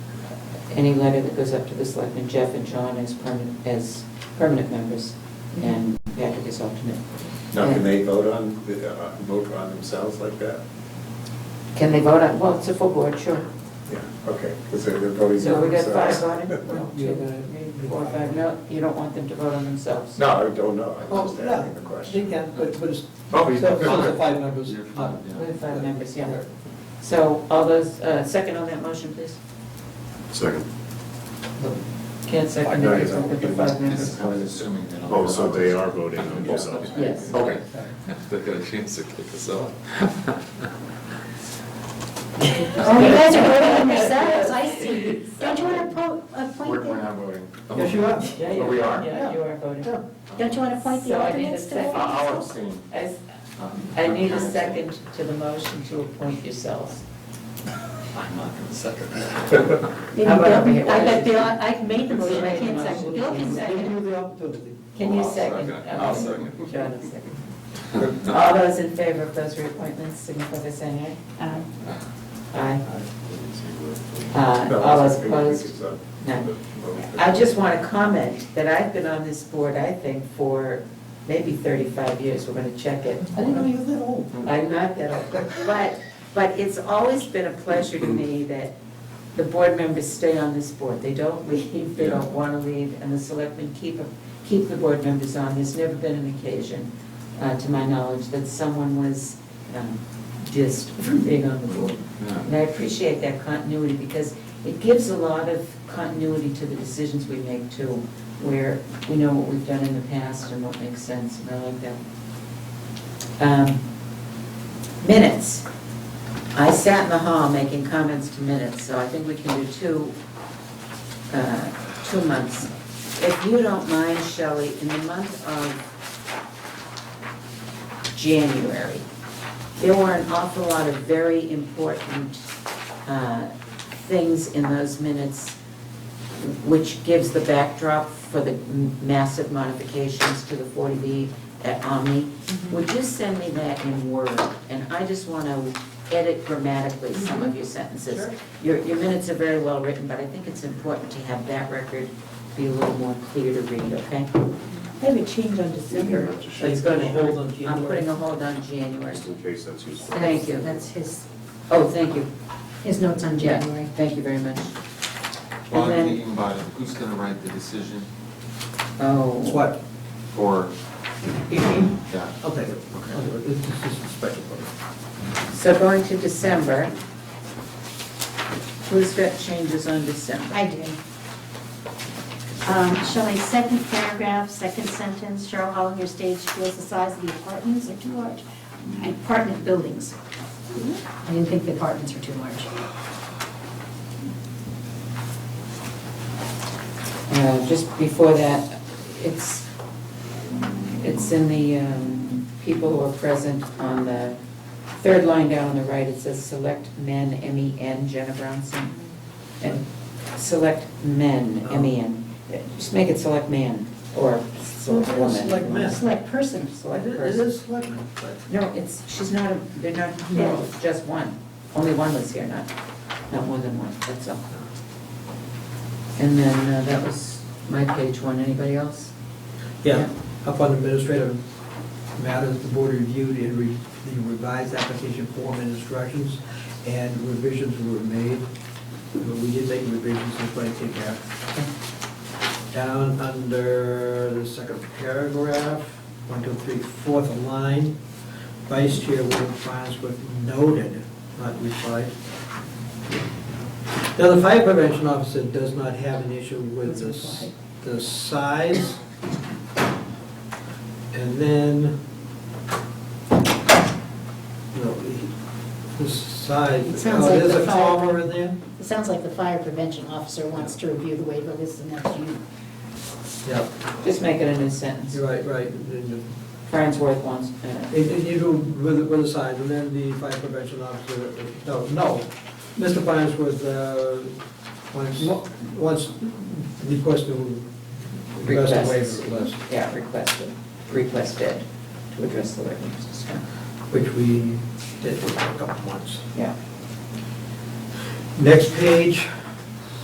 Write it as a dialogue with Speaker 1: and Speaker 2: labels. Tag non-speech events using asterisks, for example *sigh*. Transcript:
Speaker 1: any letter that goes up to the selectmen, Jeff and John as permanent, as permanent members, and Patrick is alternate.
Speaker 2: Now, can they vote on, the- uh, vote on themselves like that?
Speaker 1: Can they vote on, well, it's a full board, sure.
Speaker 2: Yeah, okay, because they're voting.
Speaker 1: So we got
Speaker 2: themselves.
Speaker 1: five on it,
Speaker 2: *laughs*
Speaker 1: well, two, three, four, five, no, you don't want them to vote on themselves.
Speaker 2: No, I don't know,
Speaker 1: Oh,
Speaker 2: I'm
Speaker 3: Well,
Speaker 2: just
Speaker 3: yeah,
Speaker 2: asking the
Speaker 3: they
Speaker 2: question.
Speaker 3: can, but, but it's, so
Speaker 2: Oh, you-
Speaker 3: so
Speaker 2: okay.
Speaker 3: it's five members.
Speaker 4: You're fine, yeah.
Speaker 1: We have five members, yeah. So all those, uh, second on that motion, please?
Speaker 5: Second.
Speaker 1: Can't
Speaker 2: I
Speaker 1: second
Speaker 2: know
Speaker 1: it,
Speaker 2: you
Speaker 1: it's
Speaker 2: don't,
Speaker 1: open to
Speaker 2: but
Speaker 1: five
Speaker 2: *laughs*
Speaker 1: members.
Speaker 4: I was assuming that. all-
Speaker 5: Oh, so they are voting on themselves.
Speaker 1: Yes.
Speaker 2: Oh,
Speaker 5: Okay.
Speaker 4: *laughs* They got a chance to kick us off.
Speaker 6: Oh, you guys are voting on yourselves, I see. Don't you want to
Speaker 5: We're
Speaker 6: appoint
Speaker 5: we're
Speaker 6: the,
Speaker 5: not voting.
Speaker 3: Yes, you are.
Speaker 1: Yeah,
Speaker 5: But we
Speaker 1: you
Speaker 5: are.
Speaker 1: Yeah, you are voting.
Speaker 3: Yeah.
Speaker 6: don't you want to appoint
Speaker 1: So
Speaker 6: the
Speaker 1: I need
Speaker 6: alternates
Speaker 1: a
Speaker 6: to
Speaker 1: second.
Speaker 6: vote?
Speaker 5: I'll abstain.
Speaker 1: I s- I need a second to the motion to appoint yourselves.
Speaker 4: I'm not gonna second
Speaker 6: Maybe
Speaker 1: How about over
Speaker 6: Bill-
Speaker 1: here?
Speaker 6: I bet Bill, I made the motion, I can't second. Bill can
Speaker 3: Give
Speaker 6: second.
Speaker 3: you the opportunity.
Speaker 1: Can you
Speaker 4: I'll
Speaker 1: second?
Speaker 4: second. I'll second.
Speaker 1: Okay, John will second.
Speaker 4: that.
Speaker 1: All those in favor of those reappointments, signify by saying
Speaker 6: Uh,
Speaker 1: aye. Aye. Uh, All those opposed? No. I just want to comment that I've been on this board, I think, for maybe 35 years, we're going to check it.
Speaker 3: I didn't know you were that old.
Speaker 1: I'm not that old, but, but it's always been a pleasure to me that the board members stay on this board. They don't leave, they don't want to leave, and the selectmen keep, keep the board members on. There's never been an occasion, uh, to my knowledge, that someone was um, dissed from being on the board. And I appreciate that continuity because it gives a lot of continuity to the decisions we make too, where we know what we've done in the past and what makes sense, and I like that. Um, Minutes. I sat in the hall making comments to minutes, so I think we can do two, uh, two months. If you don't mind, Shelley, in the month of January, there were an awful lot of very important uh, things in those minutes, which gives the backdrop for the m- massive modifications to the 40B at Omni. Would you send me that in Word? And I just want to edit grammatically some of your sentences. Your, your minutes are very well written, but I think it's important to have that record be a little more clear to read, okay?
Speaker 7: Maybe change on December.
Speaker 1: It's going to
Speaker 3: hold on
Speaker 1: I'm
Speaker 3: January.
Speaker 1: putting a hold on January.
Speaker 5: Just in case that's useful.
Speaker 1: Thank you.
Speaker 7: That's his,
Speaker 1: Oh, thank you.
Speaker 7: his notes on
Speaker 1: Yeah,
Speaker 7: January.
Speaker 1: Thank you very much.
Speaker 4: Well,
Speaker 1: And then-
Speaker 4: I'm thinking about it, who's gonna write the decision
Speaker 1: Oh.
Speaker 3: It's what?
Speaker 4: for,
Speaker 3: Eighteen?
Speaker 4: yeah,
Speaker 3: I'll take it.
Speaker 4: Okay.
Speaker 3: I'll do it. It's just it's a special vote.
Speaker 1: So going to December, who's got changes on December?
Speaker 7: I do.
Speaker 6: Um, Shelley, second paragraph, second sentence, Cheryl Hollinger stage feels the size of the apartments are too large. Apartment buildings. Hmm?
Speaker 7: I didn't think the apartments were too large.
Speaker 1: Uh, Just before that, it's, it's in the um, people who are present on the third line down on the right, it says select men, M-E-N, Jenna Brownson. And select men,
Speaker 3: Oh.
Speaker 1: M-E-N. Just make it select man or select
Speaker 3: Well,
Speaker 1: woman.
Speaker 3: select man.
Speaker 6: Select person.
Speaker 1: Select
Speaker 3: It is-
Speaker 1: person.
Speaker 3: it is selectmen, but-
Speaker 1: No, it's, she's not, a- they're not,
Speaker 6: Yeah.
Speaker 1: no, it's just one. Only one was here, not, not more than one, that's all. And then uh, that was my page one. Anybody else?
Speaker 3: Yeah, up on administrative matters, the board reviewed and re- the revised application form and instructions, and revisions were made. But We did make revisions, that's why I take that. Down under the second paragraph, one, two, three, fourth line, vice chair will finance with noted, not replied. Now, the fire prevention officer does not have an issue with the s- the size. And then, no, he- this side,
Speaker 6: It sounds
Speaker 3: oh,
Speaker 6: like
Speaker 3: there's
Speaker 6: the
Speaker 3: a
Speaker 6: fire-
Speaker 3: comma in there?
Speaker 6: It sounds like the fire prevention officer wants to review the waiver list and that's you.
Speaker 3: Yeah,
Speaker 1: Just make it a new sentence.
Speaker 3: you're right, right. And
Speaker 1: Farnsworth wants, uh,
Speaker 3: the- it- it- You do with, with the side, and then the fire prevention officer, uh, no, no. Mr. Fines was, uh, once, once requested, requested
Speaker 1: requests.
Speaker 3: waiver list,
Speaker 1: Yeah, requested, requested to address the liquor system.
Speaker 3: which we did a couple months.
Speaker 1: Yeah.
Speaker 3: Next page,